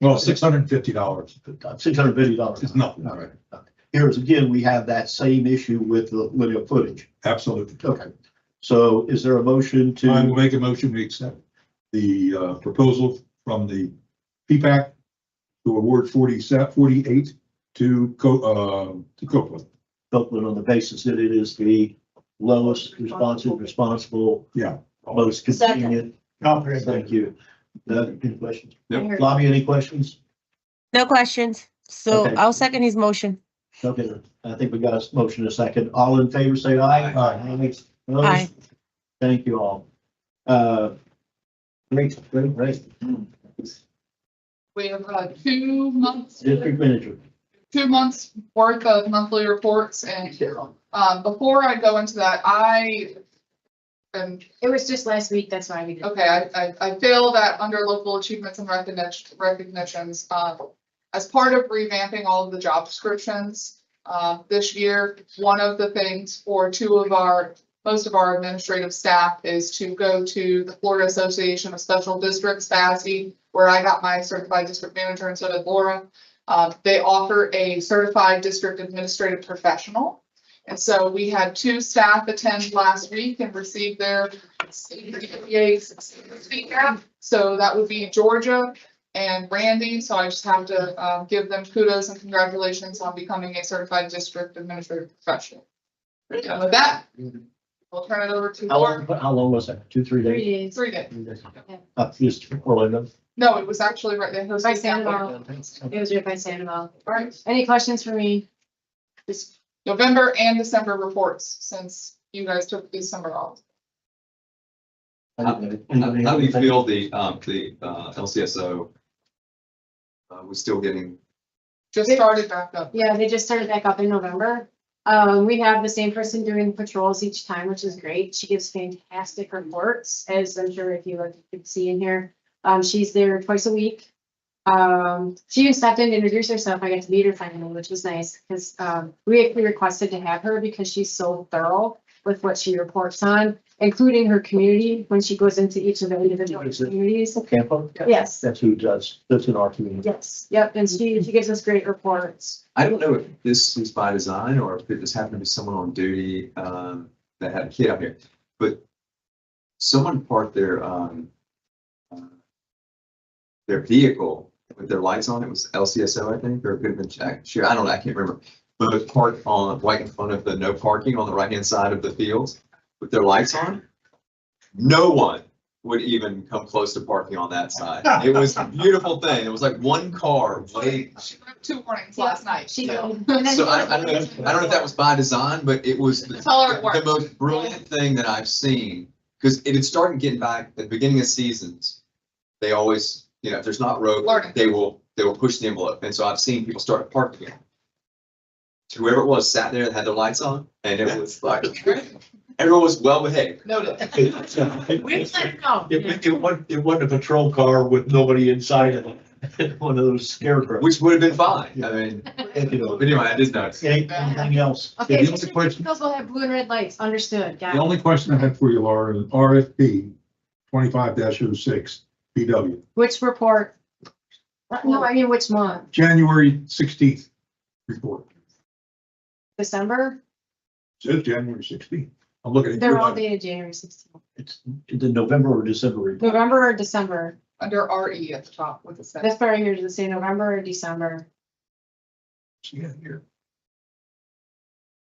Well, six hundred and fifty dollars six hundred fifty dollars. is nothing, right? Here's again, we have that same issue with the linear footage. Absolutely. Okay. So is there a motion I will to, make a motion, we accept the uh, proposal from the P-PAC to award 47 48 to Co, uh, to Copeland. Copeland on the basis that it is the lowest responsive, responsible, Yeah. most convenient? Comprehensive. Thank you. Doug, any questions? Yep. Bobby, any questions? No questions. So Okay. I'll second his motion. Okay, I think we got a motion in a second. All in favor, say aye. Aye. Opposed? Aye. Thank you all. Uh, Great, great, great. We have uh, two months, District manager. two months worth of monthly reports and um, before I go into that, I am It was just last week, that's why we did. Okay, I, I, I feel that under local achievements and recognition, recognitions, um, as part of revamping all of the job descriptions, uh, this year, one of the things for two of our, most of our administrative staff is to go to the Florida Association of Special Districts, FASD, E, where I got my certified district manager and so did Laura. Uh, they offer a certified district administrative professional. And so we had two staff attend last week and receive their so that would be Georgia and Randy, so I just have to uh, give them kudos and congratulations on becoming a certified district administrative professional. And with that, we'll turn it over to Mm-hmm. How Laura. long, how long was that? Two, three Three days? days. Three days. Up just Orlando. No, it was actually right there. By Sandoval, it was written by Sandoval. Right. Any questions for me? Just, November and December reports, since you guys took December off. How how- how do you feel the, um, the, uh, LCSO? Uh, was still getting, Just started back up. yeah, they just started back up in November. Um, we have the same person doing patrols each time, which is great. She gives fantastic reports, as I'm sure if you look, you can see in here. Um, she's there twice a week. Um, she even stopped in to introduce herself. I got to meet her finally, which was nice, because, um, we actually requested to have her because she's so thorough with what she reports on, including her community, when she goes into each of the individual Is it- communities. Campo? Yes. That's who does, that's in our community. Yes, yep, and she, she gives us great reports. I don't know if this is by design or if it just happened to be someone on duty, um, that had a kid out here, but someone parked their, um, uh, their vehicle with their lights on, it was LCSO, I think, or it could have been Jack, sure, I don't know, I can't remember. But it parked on, right in front of the no parking on the right-hand side of the fields with their lights on. No one would even come close to parking on that side. It was a beautiful thing. It was like one car way She got two warnings last night. She, Yeah. and then- so I, I don't know, if- I don't know if that was by design, but it was the Tell her it the worked. most brilliant thing that I've seen. Because it had started getting back at the beginning of seasons. They always, you know, if there's not rope, Learning. they will, they will push the envelope. And so I've seen people start parking. it. Whoever it was sat there and had their lights on and it was like, everyone was well behaved. Noted. We It, let her know. it wasn't, it wasn't a patrol car with nobody inside of it, one of those scarecrows. Which would have been fine. I mean, Thank you, but though. anyway, I did notice. Any- Anything else? Okay, the so only certain question- vehicles will have blue and red lights, understood, The got it. only question I had for you, Laura, is RFP twenty-five oh 6 BW, Which report? No, I mean, which month? January sixteenth report. December? Says January sixteenth. I'm looking at. They're your all letter. dated January sixteenth. It's the November or December report. November or December? Under RE at the top with the set. That's where I hear to say November or December. See it here.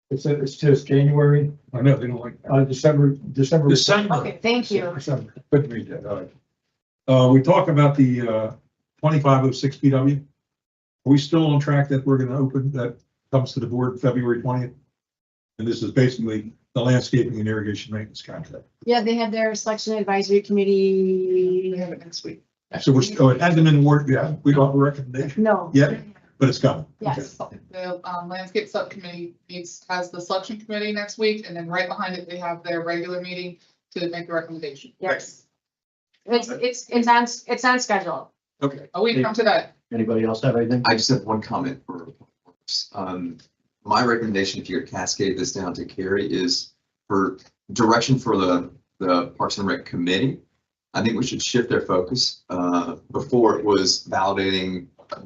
It's, it's just January, I know, they don't like. that. uh, December, December. Oh, Okay, thank you. December. Couldn't read that, all right. Uh, we talked about the, uh, twenty-five oh six PW. Are we still on track that we're gonna open, that comes to the board February twentieth? And this is basically the landscaping and irrigation maintenance contract. Yeah, they had their selection advisory committee. We have it next week. So we're, still- it hasn't been awarded, yeah, we got a recommendation, No. Yeah. but it's coming. Okay. Yes. The um, landscape subcommittee meets, has the selection committee next week, and then right behind it, they have their regular meeting to make the recommendation. Yes. It's, it's, it's on, it's on schedule. Okay. A week from today. Anybody else have anything? I just have one comment for, um, my recommendation, if you could cascade this down to Carrie, is for direction for the, the Parks and Rec Committee I think we should shift their focus. Uh, before it was validating